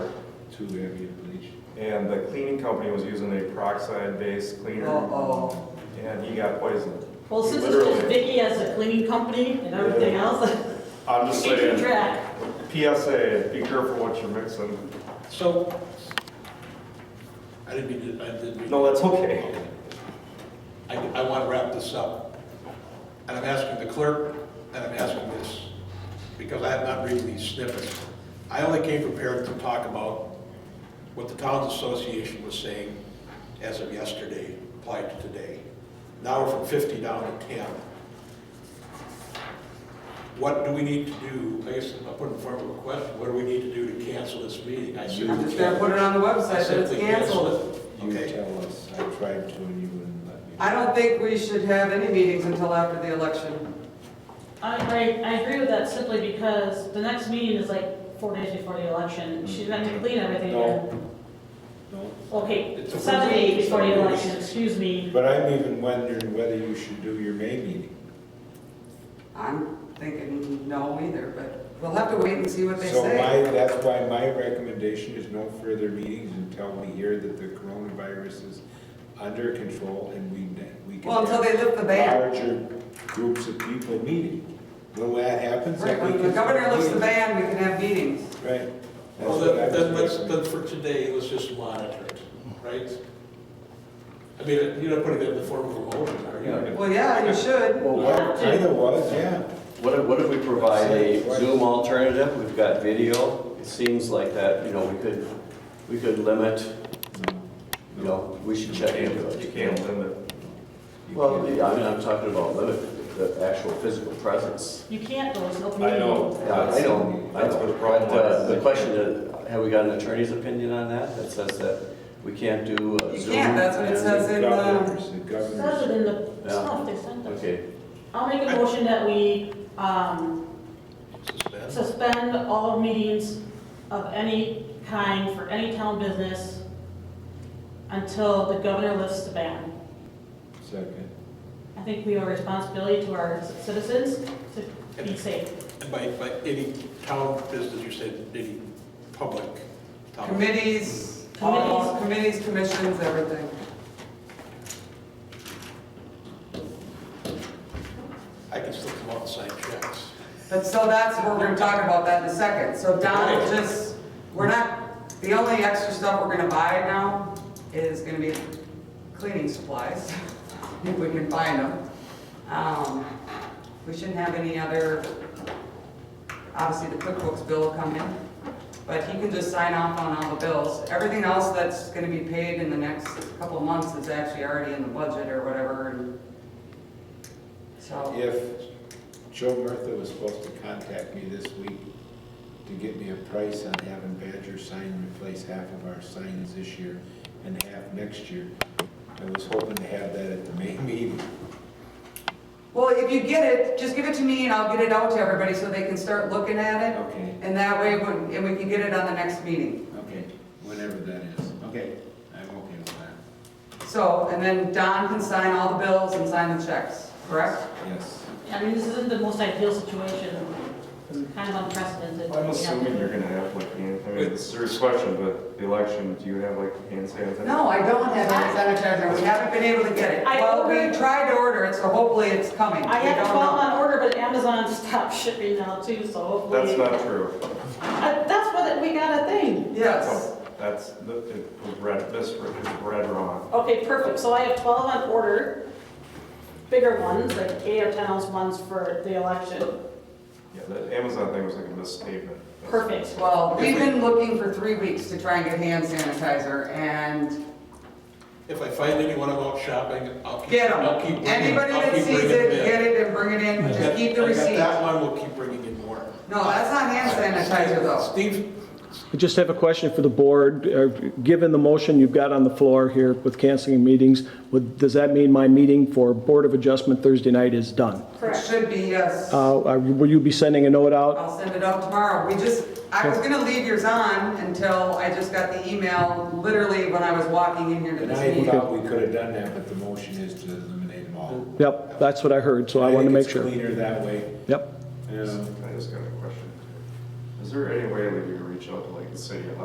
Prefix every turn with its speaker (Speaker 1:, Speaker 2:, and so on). Speaker 1: two ambient bleach.
Speaker 2: And the cleaning company was using a peroxide-based cleaner,
Speaker 3: Uh-oh.
Speaker 2: and he got poisoned.
Speaker 4: Well, since it's just
Speaker 2: Literally.
Speaker 4: Vicky as a cleaning company and everything else,
Speaker 2: I'm just
Speaker 4: keep
Speaker 2: saying,
Speaker 4: track.
Speaker 2: PSA, be careful what you're mixing.
Speaker 1: So, I didn't mean to, I didn't mean.
Speaker 2: No, that's okay.
Speaker 1: I, I want to wrap this up. And I'm asking the clerk, and I'm asking this, because I have not read these snippets. I only came prepared to talk about what the towns association was saying as of yesterday, applied to today. Now we're from 50 down to 10. What do we need to do, I guess I'll put in form of a question, what do we need to do to cancel this meeting? I said-
Speaker 3: I'm just gonna put it on the website that it's
Speaker 1: Simply cancel
Speaker 3: canceled.
Speaker 1: it.
Speaker 5: You
Speaker 1: Okay.
Speaker 5: tell us, I tried to and you wouldn't let me.
Speaker 3: I don't think we should have any meetings until after the election.
Speaker 4: I, I, I agree with that simply because the next meeting is like four days before the election. She's meant to clean everything.
Speaker 5: No. No.
Speaker 4: Okay,
Speaker 1: It's a
Speaker 4: seven
Speaker 1: Wednesday.
Speaker 4: days before the election, excuse me.
Speaker 5: But I'm even wondering whether you should do your May meeting.
Speaker 3: I'm thinking no either, but we'll have to wait and see what they
Speaker 5: So
Speaker 3: say.
Speaker 5: my, that's why my recommendation is no further meetings until we hear that the coronavirus is under control and we, we can.
Speaker 3: Well, until they
Speaker 5: have
Speaker 3: lift the ban.
Speaker 5: Larger groups of people meeting. When that happens,
Speaker 3: Right,
Speaker 5: then we
Speaker 3: when
Speaker 5: can.
Speaker 3: the governor
Speaker 5: start
Speaker 3: lifts the
Speaker 5: meeting.
Speaker 3: ban, we can have meetings.
Speaker 5: Right. That's
Speaker 1: Well,
Speaker 5: what I
Speaker 1: then,
Speaker 5: was
Speaker 1: then let's,
Speaker 5: recommending.
Speaker 1: then for today, let's just monitor it, right? I mean, you're not putting that in the form of a motion, are you?
Speaker 3: Well, yeah, you should.
Speaker 6: Well, what-
Speaker 5: Well, Either was, yeah.
Speaker 6: what if, what if we provide a Zoom alternative? We've got video. It seems like that, you know, we could, we could limit, you know, we should check into
Speaker 2: You
Speaker 6: it.
Speaker 2: can't limit.
Speaker 5: You
Speaker 6: Well,
Speaker 5: can't-
Speaker 6: yeah, I mean, I'm talking about limit, the actual physical presence.
Speaker 4: You can't go, it's an open
Speaker 2: I
Speaker 4: meeting.
Speaker 2: know.
Speaker 6: Yeah, I know, I
Speaker 2: That's what
Speaker 6: know.
Speaker 2: the problem
Speaker 6: But, uh,
Speaker 2: was.
Speaker 6: The question is, have we got an attorney's opinion on that that says that we can't do a
Speaker 3: You
Speaker 6: Zoom?
Speaker 3: can't, that's what it
Speaker 6: and-
Speaker 3: says in the,
Speaker 5: Governors, the
Speaker 4: It Says
Speaker 5: governors.
Speaker 4: it in the
Speaker 6: Yeah.
Speaker 4: stuff they sent us.
Speaker 6: Okay,
Speaker 4: I'll make a motion that we, um,
Speaker 1: Suspend.
Speaker 4: suspend all meetings of any kind for any town business until the governor lifts the ban.
Speaker 5: Second.
Speaker 4: I think we have a responsibility to our citizens to be safe.
Speaker 1: And by, by any town business, you said any public town.
Speaker 3: committees, all, committees, commissions, everything.
Speaker 1: I can still come out and sign checks.
Speaker 3: But so that's, what we're gonna talk about that in a second. So Don, just, we're not, the only extra stuff we're gonna buy now is gonna be cleaning supplies, if we can find them. Um, We shouldn't have any other, obviously the QuickBooks bill will come in, but he can just sign off on all the bills. Everything else that's gonna be paid in the next couple of months is actually already in the budget or whatever, and so.
Speaker 5: If Joe Murtha was supposed to contact me this week to get me a price on having Badger sign replace half of our signs this year and half next year, I was hoping to have that at the May meeting.
Speaker 3: Well, if you get it, just give it to me and I'll get it out to everybody so they can start looking at it.
Speaker 5: Okay,
Speaker 3: And that way, when- and we can get it on the next meeting.
Speaker 5: okay, whenever that is. Okay, I'm okay with that.
Speaker 3: So, and then Don can sign all the bills and sign the checks, correct?
Speaker 5: Yes.
Speaker 4: I mean, this isn't the most ideal situation, it's kind of unprecedented.
Speaker 2: I'm assuming you're gonna have like, hand- I mean, it's a serious question, but the election, do you have like hand sanitizer?
Speaker 3: No, I don't have any sanitizer. We haven't been able to get it.
Speaker 4: I
Speaker 3: Well, we
Speaker 4: ordered-
Speaker 3: tried to order it, so hopefully it's coming.
Speaker 4: I
Speaker 3: We
Speaker 4: have
Speaker 3: don't
Speaker 4: twelve
Speaker 3: know.
Speaker 4: on order, but Amazon stopped shipping now too, so hopefully.
Speaker 2: That's not true.
Speaker 4: Uh, That's what, we got a thing.
Speaker 3: Yes.
Speaker 2: That's, it was read, misread, it was read wrong.
Speaker 4: Okay, perfect, so I have twelve on order, bigger ones, like eight or ten ounce ones for the election.
Speaker 2: Yeah, the Amazon thing was like a misstatement.
Speaker 4: Perfect.
Speaker 3: Well, we've been looking for three weeks to try and get hand sanitizer and
Speaker 1: If I find anyone I'm out shopping, I'll keep.
Speaker 3: get
Speaker 1: I'll
Speaker 3: them.
Speaker 1: keep bringing-
Speaker 3: Anybody
Speaker 1: I'll
Speaker 3: that
Speaker 1: keep
Speaker 3: sees
Speaker 1: bringing them
Speaker 3: it,
Speaker 1: in.
Speaker 3: get it and bring it in.
Speaker 1: I
Speaker 3: Just
Speaker 1: got-
Speaker 3: keep
Speaker 1: I
Speaker 3: the
Speaker 1: got
Speaker 3: receipt.
Speaker 1: That one, we'll keep bringing in more.
Speaker 3: No, that's not hand sanitizer though.
Speaker 1: Steve,
Speaker 7: I just have a question for the board. Uh, Given the motion you've got on the floor here with canceling meetings, would- does that mean my meeting for Board of Adjustment Thursday night is done?
Speaker 3: It should be, yes.
Speaker 7: Uh, uh, Will you be sending a note out?
Speaker 3: I'll send it out tomorrow. We just, I was gonna leave yours on until I just got the email, literally when I was walking in here to
Speaker 5: And
Speaker 3: this
Speaker 5: I
Speaker 3: meeting.
Speaker 5: thought we could have done that, but the motion is to eliminate them all.
Speaker 7: Yep, that's what I heard, so I want to
Speaker 5: think
Speaker 7: make
Speaker 5: it's
Speaker 7: sure.
Speaker 5: cleaner that way.
Speaker 7: Yep.
Speaker 5: Um,
Speaker 2: I just got a question. Is there any way that you can reach out to like the city of